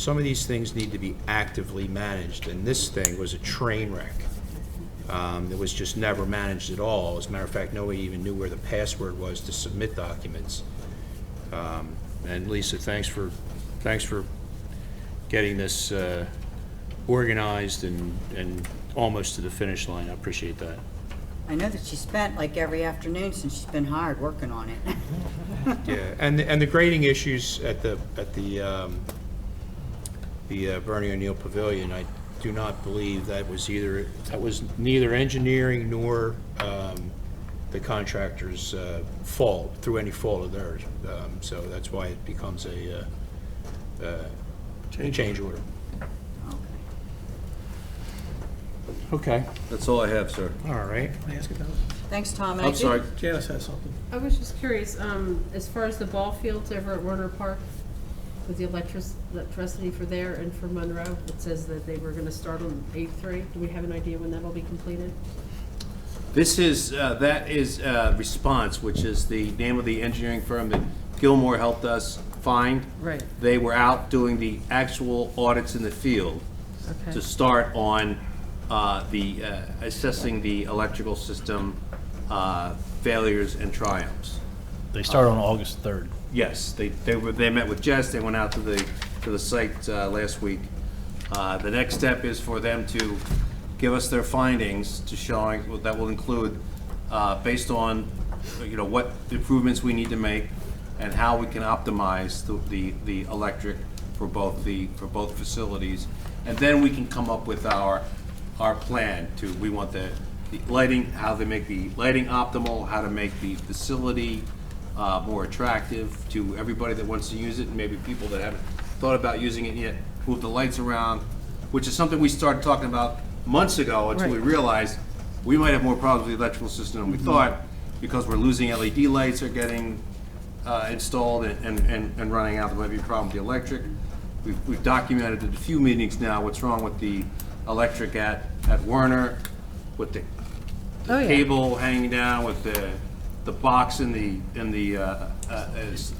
some of these things need to be actively managed, and this thing was a train wreck. Um, It was just never managed at all. As a matter of fact, nobody even knew where the password was to submit documents. Um, And Lisa, thanks for, thanks for getting this uh, organized and, and almost to the finish line. I appreciate that. I know that she spent like every afternoon since she's been hired working on it. Yeah, and, and the grading issues at the, at the, um, the uh, Bernie O'Neill Pavilion, I do not believe that was either, that was neither engineering nor, um, the contractor's, uh, fault, through any fault of theirs. Um, so that's why it becomes a, uh, uh, a change order. Okay, That's all I have, sir. all right. Can I ask about? Thanks, Tom. and I I'm did- sorry, Janice has something. I was just curious, um, as far as the ball fields over at Warner Park, with the electric, electricity for there and for Monroe, it says that they were gonna start on eight three. Do we have an idea when that'll be completed? This is, uh, that is uh, Response, which is the name of the engineering firm that Gilmore helped us find. Right. They were out doing the actual audits in the field Okay. to start on uh, the, uh, assessing the electrical system uh, failures and triumphs. They start on August 3rd. Yes, they, they were, they met with Jess, they went out to the, to the site uh, last week. Uh, The next step is for them to give us their findings to showing, that will include, uh, based on, you know, what improvements we need to make and how we can optimize the- the, the electric for both the, for both facilities. And then we can come up with our, our plan to, we want the, the lighting, how they make the lighting optimal, how to make the facility uh, more attractive to everybody that wants to use it, and maybe people that haven't thought about using it yet, move the lights around, which is something we started talking about months ago until we Right. realized we might have more problems with the electrical system than we thought, because we're losing LED lights are getting uh, installed and, and- and, and running out, there might be a problem with the electric. We've, we've documented at a few meetings now what's wrong with the electric at, at Werner, with the Oh, the yeah. cable hanging down with the, the box in the, in the, uh, uh, is,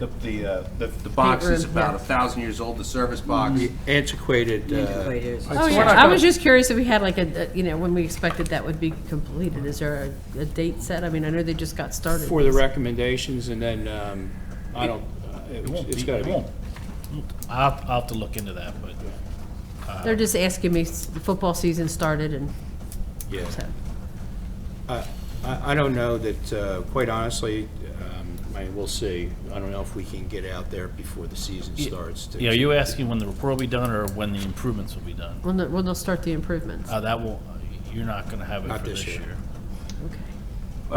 the, the, uh, the the box is Room, about yeah. a thousand years old, the service box. Antiquated, uh, Anyway, it is. Oh, yeah, I was just curious if we had like a, a- you know, when we expected that would be completed. Is there a, a date set? I mean, I know they just got started. for the recommendations, and then, um, I don't, uh, It won't it's- be, it's gotta it be. won't. I'll, I'll have to look into that, but They're just asking me, s- the football season started and Yeah. so. I, I I don't know that, uh, quite honestly, um, I mean, we'll see. I don't know if we can get out there before the season starts. to- yeah, are you asking when the report will be done or when the improvements will be done? When, the- when they'll start the improvements? Uh, that will, you're not gonna have it Not for this this year. year. Okay.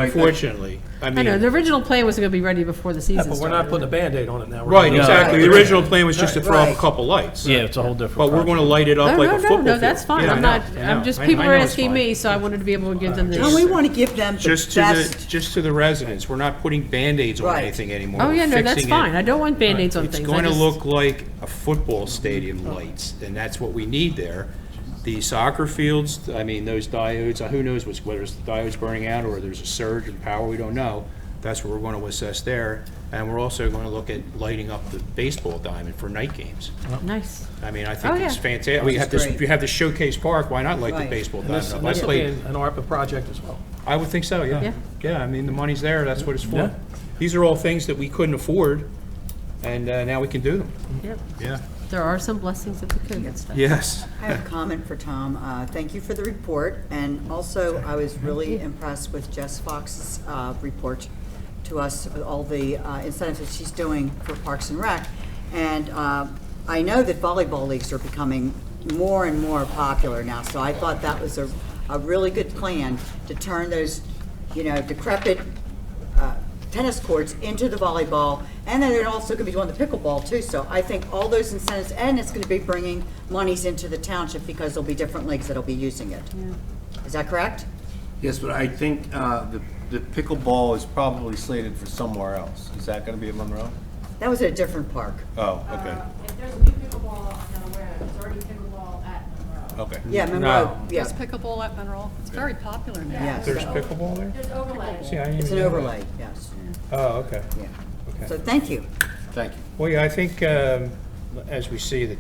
Unfortunately, I I mean, know, the original plan was gonna be ready before the season But started. we're not putting a Band-Aid on it now. We're right, gonna- exactly. The original plan was just to throw up a Right. couple lights. Yeah, it's a whole different. But we're gonna light it No, up like no, a no, football no, field. that's fine. Yeah, I I'm know, not, I know. I'm just, I- people I are know it's asking fine. me, so I wanted to be able to give them the. No, we want to give them Just the to the, best. just to the residents. We're not putting Band-Aids on Right. anything anymore. Oh, We're yeah, no, that's fixing it. fine. I don't want Band-Aids on It's things. I going to just- look like a football stadium lights, and that's what we need there. The soccer fields, I mean, those diodes, uh, who knows what's, whether it's the diodes burning out or there's a surge in power, we don't know. That's what we're going to assess there, and we're also going to look at lighting up the baseball diamond for night games. Nice. I mean, I Oh, think it's yeah. fantastic. We have this, great. we have the showcase park, why not light the Right. baseball And this, diamond up? and I this will be played, an an ARPA project as well. I would think so, yeah. Yeah. Yeah, I mean, the money's there, that's what it's for. These are all things that we couldn't afford, and uh, now we can do them. Yep. Yeah. There are some blessings of the COVID stuff. Yes. I have a comment for Tom. Uh, Thank you for the report, and also, I was really impressed with Jess Fox's uh, report to us, all the uh, incentives that she's doing for Parks and Rec. And uh, I know that volleyball leagues are becoming more and more popular now, so I thought that was a, a really good plan to turn those, you know, decrepit uh, tennis courts into the volleyball, and then they're also gonna be doing the pickleball too, so I think all those incentives, and it's gonna be bringing monies into the township because there'll be different leagues that'll be using it. Is that correct? Yes, but I think uh, the the pickleball is probably slated for somewhere else. Is that going to be at Monroe? That was at a different park. Oh, okay, If there's a new pickleball, I'm not aware of, there's already pickleball at Monroe. okay. Yeah, Monroe, yeah, There's pickleball at Monroe. It's very popular now. yes. There's pickleball there? There's overlay. See, I didn't It's an even know overlay, yes, that. Oh, okay. yeah. Okay. So thank you. Thank you. Well, yeah, I think, um, as we see, the